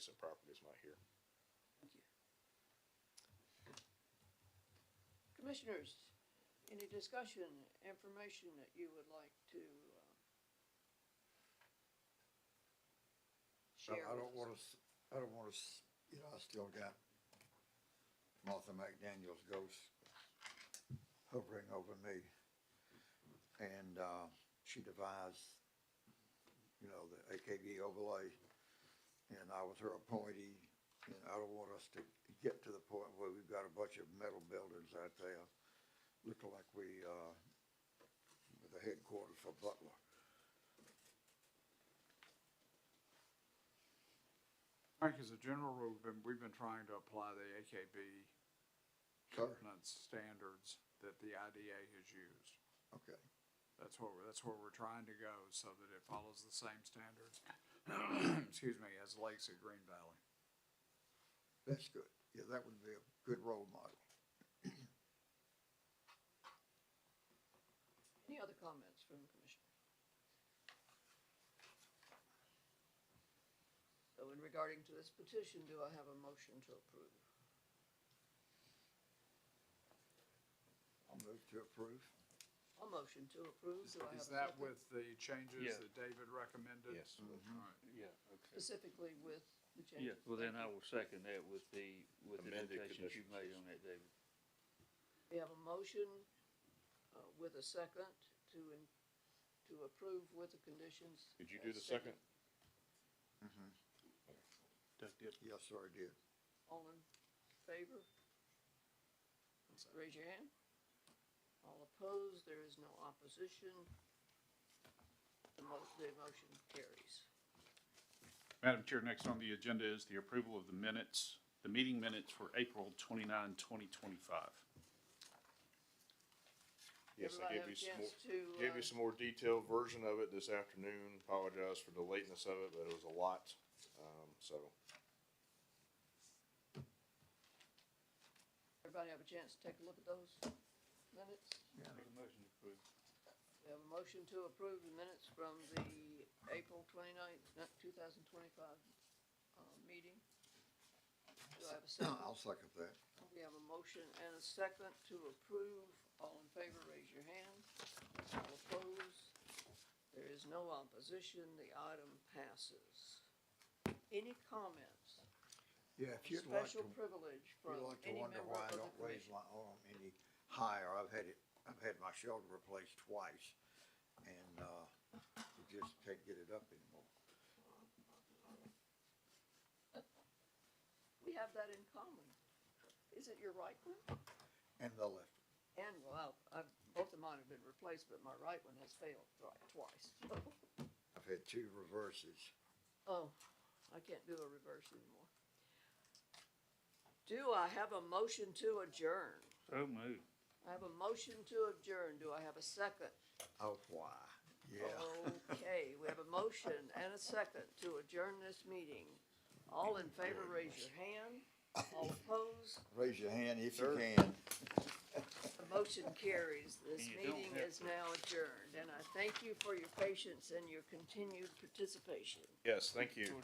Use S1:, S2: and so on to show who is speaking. S1: adjacent properties might hear.
S2: Commissioners, any discussion, information that you would like to uh,
S3: I
S2: share
S3: I
S2: with
S3: don't
S2: us?
S3: wanna, s- I don't wanna, s- you know, I still got Martha McDaniel's ghost hovering over me. And, uh, she devised, you know, the AKB overlay, and I was her appointee. And I don't want us to get to the point where we've got a bunch of metal buildings out there, looking like we, uh, with the headquarters for Butler.
S4: Frank, as a general rule, we've been, we've been trying to apply the AKB
S3: Sure.
S4: covenant standards that the IDA has used.
S3: Okay.
S4: That's where, we're- that's where we're trying to go, so that it follows the same standards, excuse me, as lakes at Green Valley.
S3: That's good. Yeah, that would be a good role model.
S2: Any other comments from the commission? So in regarding to this petition, do I have a motion to approve?
S3: I'll move to approve.
S2: A motion to approve,
S4: Is-
S2: do I have a
S4: Is that
S2: second?
S4: with the
S5: Yeah.
S4: changes that David recommended?
S1: Yes.
S2: Mm-hmm.
S4: All
S3: Mm-hmm.
S4: right.
S5: Yeah, okay.
S2: Specifically with the change?
S5: Yeah, well, then I will second that with the, with the
S1: Amended
S5: notations you
S1: conditions.
S5: made on that, David.
S2: We have a motion uh, with a second to, in- to approve with the conditions.
S1: Did you
S2: as
S1: do the second?
S3: Mm-hmm.
S5: Doug did.
S3: Yes, sir, I did.
S2: All in favor? Raise your hand. All opposed, there is no opposition. The mo- the motion carries.
S6: Madam Chair, next on the agenda is the approval of the minutes, the meeting minutes for April 29, 2025.
S1: Yes, I gave
S2: Everybody have
S1: you
S2: a
S1: some more,
S2: chance to,
S1: gave you
S2: uh,
S1: some more detailed version of it this afternoon. Apologize for the lateness of it, but it was a lot, um, so.
S2: Everybody have a chance to take a look at those minutes?
S5: Make a motion to approve.
S2: We have a motion to approve the minutes from the April twenty-ninth, two thousand twenty-five, uh, meeting. Do I have a second?
S3: I'll second that.
S2: We have a motion and a second to approve. All in favor, raise your hand. All opposed? There is no opposition. The item passes. Any comments?
S3: Yeah, if you'd like
S2: Special
S3: to, you'd
S2: privilege from
S3: like to
S2: any
S3: wonder
S2: member
S3: why I
S2: of
S3: don't
S2: the
S3: raise
S2: commission.
S3: my arm any higher, I've had it, I've had my shoulder replaced twice. And, uh, you just can't get it up anymore.
S2: We have that in common. Is it your right one?
S3: And the left.
S2: And, well, I've, both of mine have been replaced, but my right one has failed thri- twice.
S3: I've had two reverses.
S2: Oh, I can't do a reverse anymore. Do I have a motion to adjourn?
S5: So moved.
S2: I have a motion to adjourn. Do I have a second?
S3: Oh, why? Yeah.
S2: Okay, we have a motion and a second to adjourn this meeting. All in favor, raise your hand. All opposed,
S3: Raise your hand if you
S1: Sir.
S3: can.
S2: the motion carries. This
S5: You don't
S2: meeting
S5: have
S2: is now adjourned, and I thank you for your patience and your continued participation.
S1: Yes, thank you.